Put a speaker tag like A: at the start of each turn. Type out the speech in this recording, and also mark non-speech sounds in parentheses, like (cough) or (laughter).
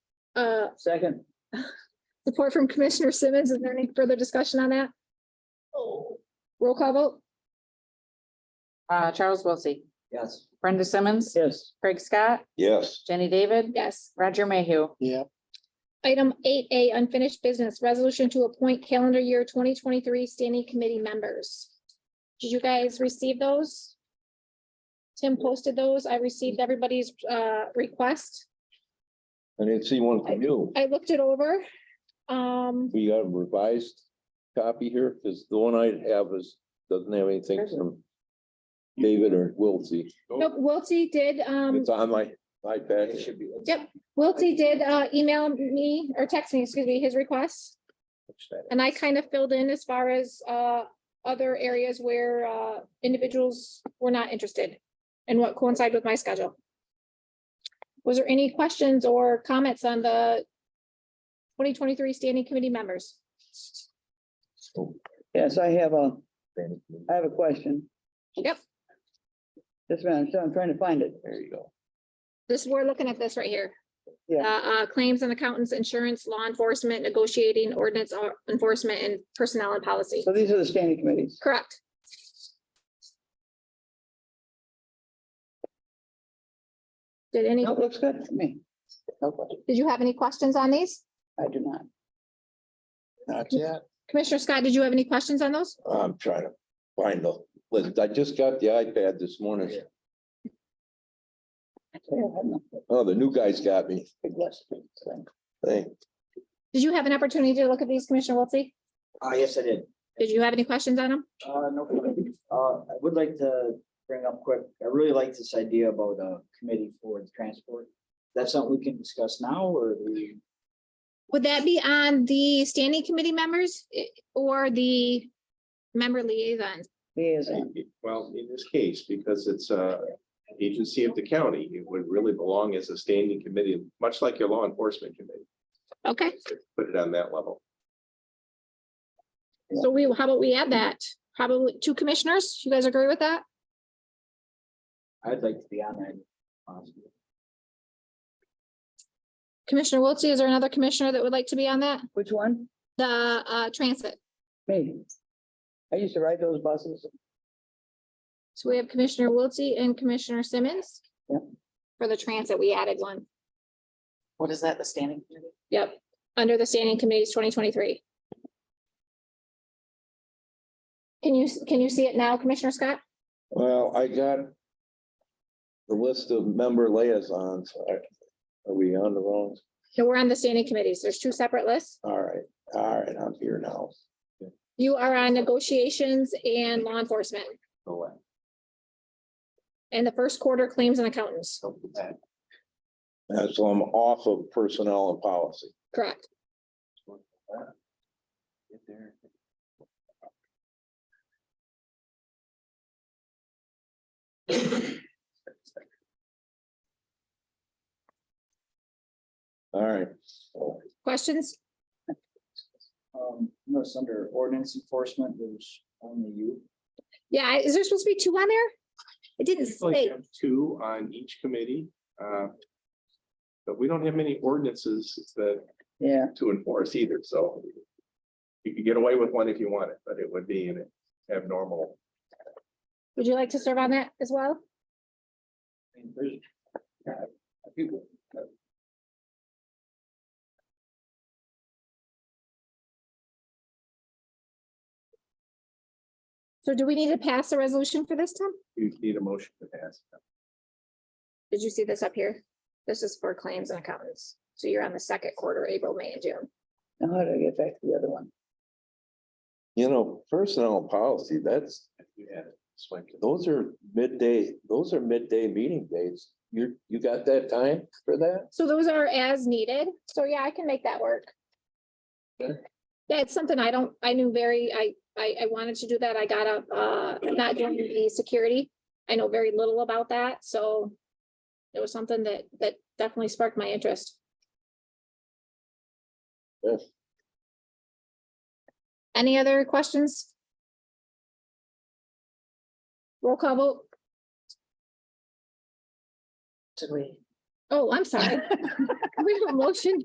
A: Uh,
B: Second.
A: support from Commissioner Simmons. Is there any further discussion on that? Roll call vote?
C: Uh, Charles Wilsey,
B: Yes.
C: Brenda Simmons,
B: Yes.
C: Craig Scott,
D: yes,
C: Jenny David,
A: Yes.
C: Roger Mayhew.
A: Item eight A, unfinished business, resolution to appoint calendar year twenty twenty-three standing committee members. Did you guys receive those? Tim posted those. I received everybody's uh request.
D: I didn't see one from you.
A: I looked it over. Um,
D: We got a revised copy here, because the one I have is, doesn't have anything from David or Wiltsey.
A: nope, Wiltie did, um,
D: It's on my iPad.
B: It should be.
A: Yep. Wiltie did uh email me or text me, excuse me, his request. And I kind of filled in as far as uh other areas where uh individuals were not interested and what coincided with my schedule. Was there any questions or comments on the twenty twenty-three standing committee members?
E: Yes, I have a, I have a question.
A: Yep.
E: Just a minute, so I'm trying to find it.
D: There you go.
A: This, we're looking at this right here.
E: Yeah.
A: Uh, uh, claims and accountants, insurance, law enforcement, negotiating ordinance uh, enforcement and personnel and policy.
E: So these are the standing committees.
A: Correct. Did any,
E: No, it looks good to me. Okay,
A: did you have any questions on these?
E: I do not.
D: Not yet.
A: Commissioner Scott, did you have any questions on those?
D: I'm trying to find the, list. I just got the iPad this morning.
E: I have no
D: Oh, the new guy's got me.
E: big list. So,
D: Hey,
A: Did you have an opportunity to look at these, Commissioner Wiltie?
B: Ah, yes, I did.
A: Did you have any questions on them?
B: Uh, no, problem. uh, I would like to bring up quick, I really like this idea about a committee for transport. That's something we can discuss now or we,
A: Would that be on the standing committee members eh, or the member liaisons?
E: Liaison.
F: Well, in this case, because it's a agency of the county, it would really belong as a standing committee, much like your law enforcement committee.
A: Okay,
F: Put it on that level.
A: so we, how about we add that? Probably two commissioners. You guys agree with that?
B: I'd like to be on that. um,
A: Commissioner Wiltie, is there another commissioner that would like to be on that?
E: Which one?
A: The uh transit.
E: Me. I used to ride those buses.
A: So we have Commissioner Wiltie and Commissioner Simmons.
E: Yep.
A: For the transit, we added one.
C: What is that, the standing committee?
A: Yep, under the standing committees twenty twenty-three. Can you, can you see it now, Commissioner Scott?
D: well, I got the list of member liaisons. Are are we on the wrong?
A: No, we're on the standing committees. There's two separate lists.
D: All right, all right, I'm here now.
A: You are on negotiations and law enforcement
B: go on.
A: and the first quarter claims and accountants.
B: So, uh,
D: Uh, So I'm off of personnel and policy.
A: Correct.
B: get there.
D: All right.
A: Questions?
B: Um, notice under ordinance enforcement, there's only you.
A: Yeah, I- is there supposed to be two on there? It didn't
F: Like you
A: say.
F: have two on each committee. uh, But we don't have many ordinances that
E: Yeah,
F: to enforce either, so you could get away with one if you wanted, but it would be an abnormal.
A: Would you like to serve on that as well?
B: I mean, there's, uh, a few.
A: So do we need to pass a resolution for this, Tim?
F: You need a motion to pass.
A: Did you see this up here? This is for claims and accountants. So you're on the second quarter, April, May, and June.
E: now how do I get back to the other one?
D: You know, personnel and policy, that's,
F: You had it. Swipe it.
D: those are midday, those are midday meeting dates. You, you got that time for that?
A: So those are as needed. So yeah, I can make that work.
D: Okay.
A: Yeah, it's something I don't, I knew very, I, I, I wanted to do that. I got up, uh, not doing the security. I know very little about that, so it was something that, that definitely sparked my interest.
D: Yes.
A: Any other questions? Roll call vote.
C: Did we?
A: Oh, I'm sorry. (laughs) We have a motion